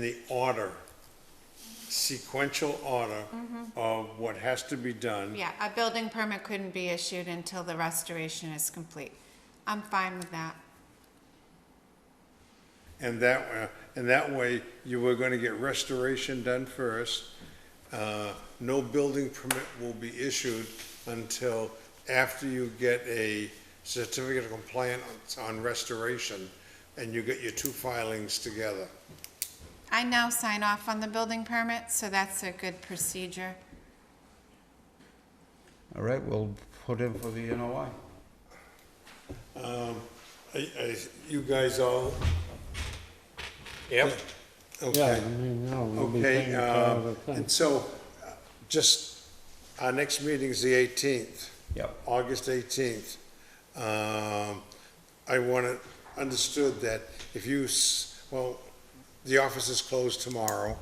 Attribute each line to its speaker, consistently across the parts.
Speaker 1: the order, sequential order of what has to be done.
Speaker 2: Yeah, a building permit couldn't be issued until the restoration is complete. I'm fine with that.
Speaker 1: And that, uh, and that way, you were gonna get restoration done first. Uh, No building permit will be issued until after you get a certificate of compliance on restoration, and you get your two filings together.
Speaker 2: I now sign off on the building permit, so that's a good procedure.
Speaker 3: All right, we'll put in for the NOI.
Speaker 1: I, I, you guys all? Yep.
Speaker 4: Yeah, I
Speaker 1: Okay.
Speaker 4: mean, no, we'll be
Speaker 1: Okay,
Speaker 4: taking care of the
Speaker 1: um,
Speaker 4: thing.
Speaker 1: and so, uh, just, our next meeting's the eighteenth.
Speaker 3: Yep.
Speaker 1: August eighteenth. Um, I want it understood that if you, s- well, the office is closed tomorrow,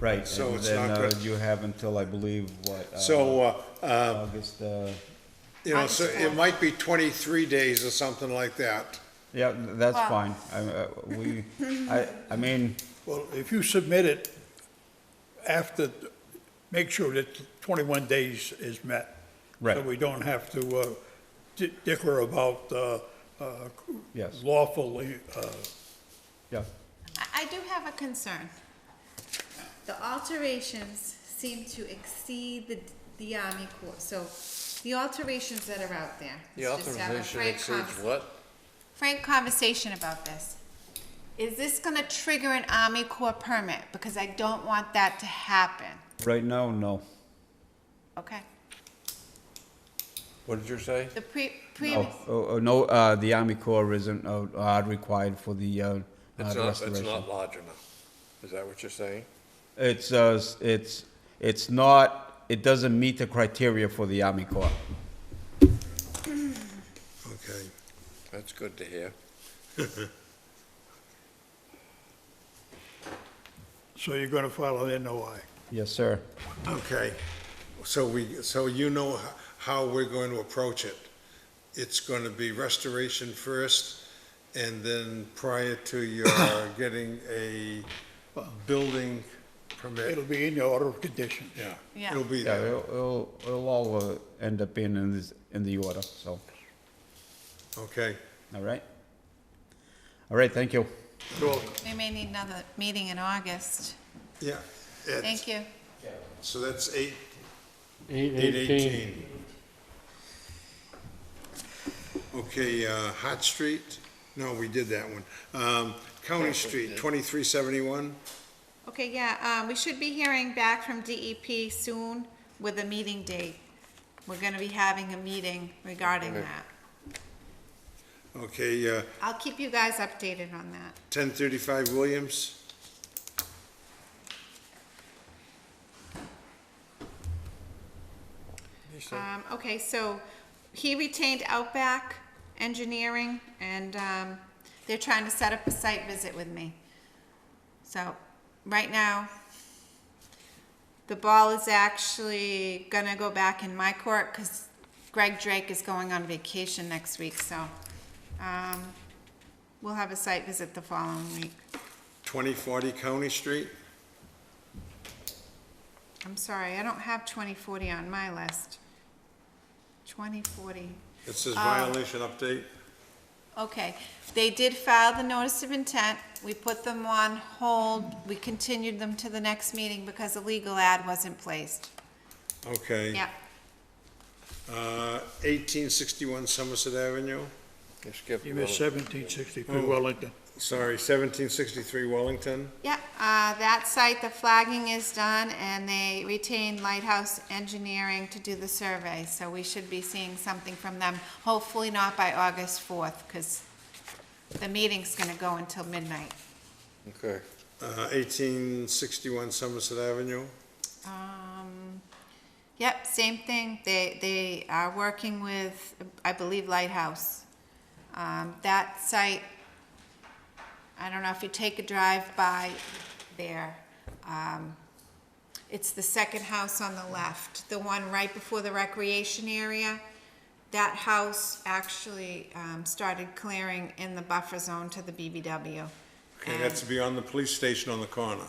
Speaker 3: Right,
Speaker 1: So
Speaker 3: and
Speaker 1: it's
Speaker 3: then
Speaker 1: not
Speaker 3: uh,
Speaker 1: good.
Speaker 3: you have until, I believe, what? uh,
Speaker 1: so, uh, uh,
Speaker 3: August, uh,
Speaker 1: you know, so
Speaker 2: August
Speaker 1: it
Speaker 2: fourth.
Speaker 1: might be twenty-three days or something like that.
Speaker 3: yeah, th- that's
Speaker 2: Well-
Speaker 3: fine. I, uh, we, I, I mean,
Speaker 5: Well, if you submit it after, make sure that 21 days is met.
Speaker 3: Right.
Speaker 5: So we don't have to uh, di- dicker about uh, uh,
Speaker 3: Yes.
Speaker 5: lawfully, uh,
Speaker 3: yeah,
Speaker 2: I, I do have a concern. The alterations seem to exceed the, the Army Corps, so the alterations that are out there.
Speaker 6: The
Speaker 2: let's just have a
Speaker 6: authorization
Speaker 2: frank
Speaker 6: exceeds
Speaker 2: conversation.
Speaker 6: what?
Speaker 2: frank conversation about this. Is this gonna trigger an Army Corps permit? Because I don't want that to happen,
Speaker 3: right now, no.
Speaker 2: okay?
Speaker 6: What did you say?
Speaker 2: The pre, previous.
Speaker 3: No, oh, oh, no, uh, the Army Corps isn't, uh, uh, required for the, uh, uh,
Speaker 6: It's not, it's
Speaker 3: restoration.
Speaker 6: not large enough. Is that what you're saying?
Speaker 3: It's, uh, s- it's, it's not, it doesn't meet the criteria for the Army Corps.
Speaker 1: Okay.
Speaker 6: That's good to hear.
Speaker 5: so you're going to file an NOI.
Speaker 3: Yes, sir.
Speaker 1: Okay, so we, so you know h- how we're going to approach it. It's going to be restoration first, and then prior to your getting a building
Speaker 5: It'll
Speaker 1: permit.
Speaker 5: be in your order of conditions.
Speaker 1: Yeah.
Speaker 2: Yeah.
Speaker 1: It'll be
Speaker 3: Yeah,
Speaker 1: there,
Speaker 3: it'll, it'll, it'll all, uh, end up being in this, in the order, so,
Speaker 1: okay?
Speaker 3: all right? All right, thank you.
Speaker 5: So
Speaker 2: We may need another meeting in August.
Speaker 1: Yeah. it's-
Speaker 2: Thank you.
Speaker 1: So that's eight,
Speaker 4: Eight
Speaker 1: eight
Speaker 4: eighteen.
Speaker 1: eighteen. Okay, uh, Hot Street, no, we did that one. Um, County Street, twenty-three seventy-one,
Speaker 2: Okay, yeah, um, we should be hearing back from DEP soon with a meeting date. We're gonna be having a meeting regarding that.
Speaker 1: okay, uh,
Speaker 2: I'll keep you guys updated on that.
Speaker 1: ten thirty-five Williams.
Speaker 2: Um, okay, so he retained Outback Engineering and, um, they're trying to set up a site visit with me. So, right now, the ball is actually gonna go back in my court because Greg Drake is going on vacation next week, so, um, we'll have a site visit the following week.
Speaker 1: 2040 County Street.
Speaker 2: I'm sorry, I don't have twenty forty on my list. Twenty forty.
Speaker 1: It says violation update.
Speaker 2: Okay, they did file the notice of intent, we put them on hold, we continued them to the next meeting because a legal ad wasn't placed.
Speaker 1: Okay.
Speaker 2: Yep,
Speaker 1: Uh, 1861 Somerset Avenue,
Speaker 6: You skipped
Speaker 5: you
Speaker 6: one.
Speaker 5: missed 1763 Wellington.
Speaker 1: sorry, 1763 Wellington.
Speaker 2: yep, uh, that site, the flagging is done, and they retained Lighthouse Engineering to do the survey, so we should be seeing something from them, hopefully not by August fourth, because the meeting's gonna go until midnight.
Speaker 6: Okay.
Speaker 1: Uh, 1861 Somerset Avenue.
Speaker 2: Um, yep, same thing. They, they are working with, I believe Lighthouse. Um, that site, I don't know if you take a drive by there. Um, it's the second house on the left, the one right before the recreation area. That house actually, um, started clearing in the buffer zone to the BBW.
Speaker 1: Okay, that's beyond the police station on the corner.